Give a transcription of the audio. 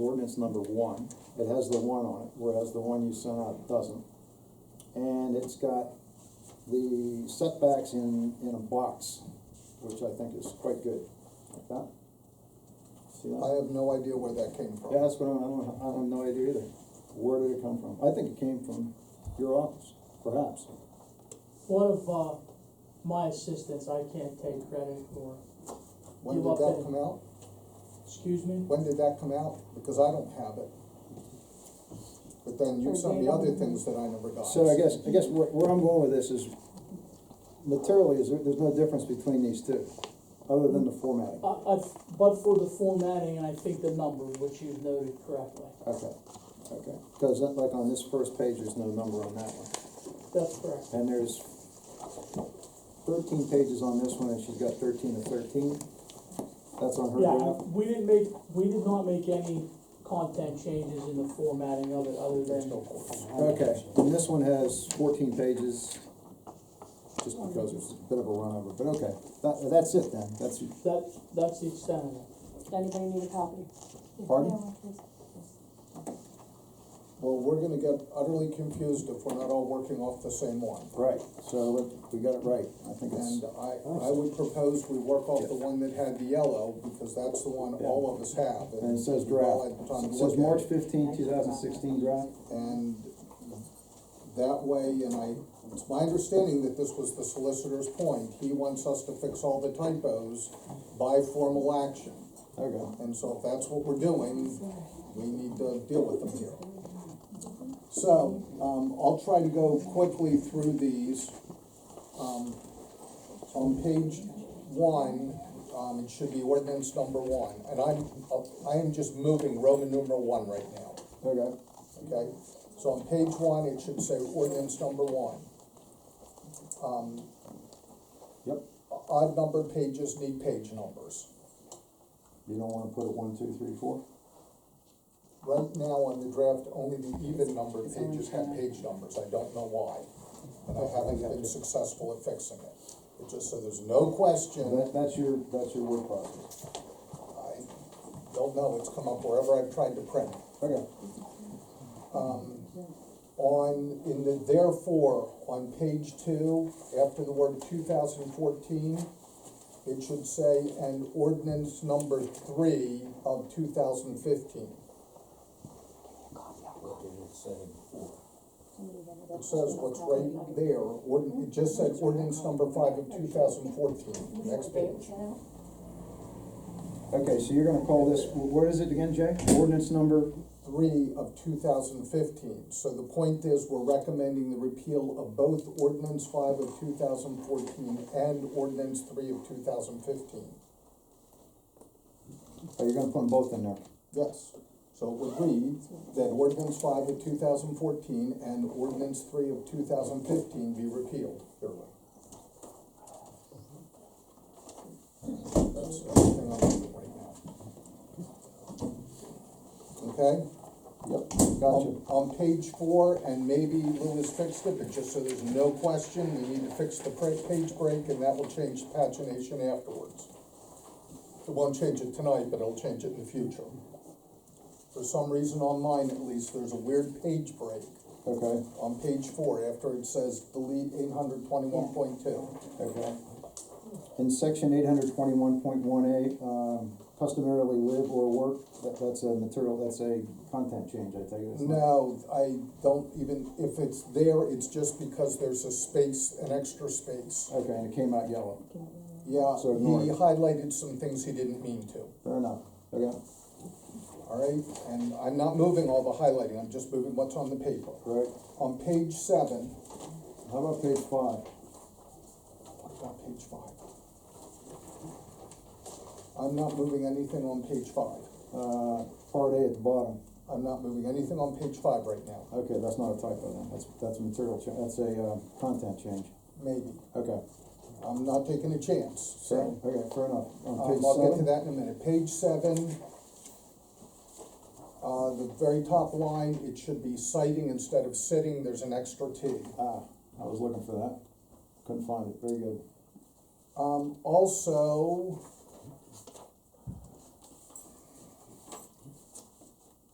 ordinance number one, it has the one on it, whereas the one you sent out doesn't. And it's got the setbacks in, in a box, which I think is quite good, like that. See that? I have no idea where that came from. Yeah, that's what I'm, I don't, I have no idea either. Where did it come from? I think it came from your office, perhaps. One of, uh, my assistants, I can't take credit for, When You did that updated. come out? excuse me? When did that come out? Because I don't have it. But then you sent me other things that I never got. So I guess, I guess where, where I'm going with this is materially, is there, there's no difference between these two, other than the formatting. I, I, but for the formatting, and I think the number, which you've noted correctly, Okay, okay. Cause that- like on this first page, there's no number on that one. that's correct. And there's thirteen pages on this one, and she's got thirteen of thirteen. That's on her Yeah, draft. I- we didn't make, we did not make any content changes in the formatting of it, other than, Okay, and this one has fourteen pages, just because it's a bit of a run over, but okay, that, that's it then, that's, that, that's the extent of it. Does anybody need a copy? pardon? Well, we're gonna get utterly confused if we're not all working off the same one. Right, so let- we got it right, I think it's, And I, I would propose we work off the one that had the yellow, because that's the one all of us have. and it says we've all draft, had time to it says look at March it. fifteenth, two thousand sixteen draft. And that way, and I, it's my understanding that this was the solicitor's point, he wants us to fix all the typos by formal action. Okay, And so if that's what we're doing, we need to deal with them here. So, um, I'll try to go quickly through these. Um, on page one, um, it should be ordinance number one, and I'm, I am just moving Roman numeral one right now. okay, Okay, so on page one, it should say ordinance number one. Um, yep, Odd numbered pages need page numbers. you don't wanna put it one, two, three, four? Right now on the draft, only the even numbered pages have page numbers, I don't know why. And I haven't been successful at fixing it. It just, so there's no question, That, that's your, that's your word process, I don't know, it's come up wherever I've tried to print it. okay, um, on, in the therefore, on page two, after the word two thousand fourteen, it should say, and ordinance number three of two thousand fifteen. It says what's right there, ord, it just said ordinance number five of two thousand fourteen, next page. okay, so you're gonna call this, wh- what is it again, Jay? Ordinance number, Three of two thousand fifteen, so the point is, we're recommending the repeal of both ordinance five of two thousand fourteen and ordinance three of two thousand fifteen. oh, you're gonna put them both in there, Yes, so it would read that ordinance five of two thousand fourteen and ordinance three of two thousand fifteen be repealed. Fairly. That's everything I'm doing right now. Okay? yep, gotcha. On, on page four, and maybe Lewis fixed it, but just so there's no question, we need to fix the pra- page break, and that will change pagination afterwards. It won't change it tonight, but it'll change it in the future. For some reason on mine at least, there's a weird page break Okay, on page four after it says delete eight hundred twenty-one point two. okay. In section eight hundred twenty-one point one A, um, customarily live or work, that, that's a material, that's a content change, I take it. it's not- No, I don't even, if it's there, it's just because there's a space, an extra space. Okay, and it came out yellow, Yeah, So ignore he it. highlighted some things he didn't mean to, fair enough, okay, all right? And I'm not moving all the highlighting, I'm just moving what's on the paper. right, On page seven, how about page five? what's on page five? I'm not moving anything on page five. Uh, part A at the bottom, I'm not moving anything on page five right now, okay, that's not a typo then, that's, that's a material cha, that's a, um, content change, maybe. okay, I'm not taking a chance, fair, so. okay, fair enough. On Um, page I'll get to seven? that in a minute. Page seven, uh, the very top line, it should be citing instead of sitting, there's an extra T. Ah, I was looking for that, couldn't find it, very good, Um, also,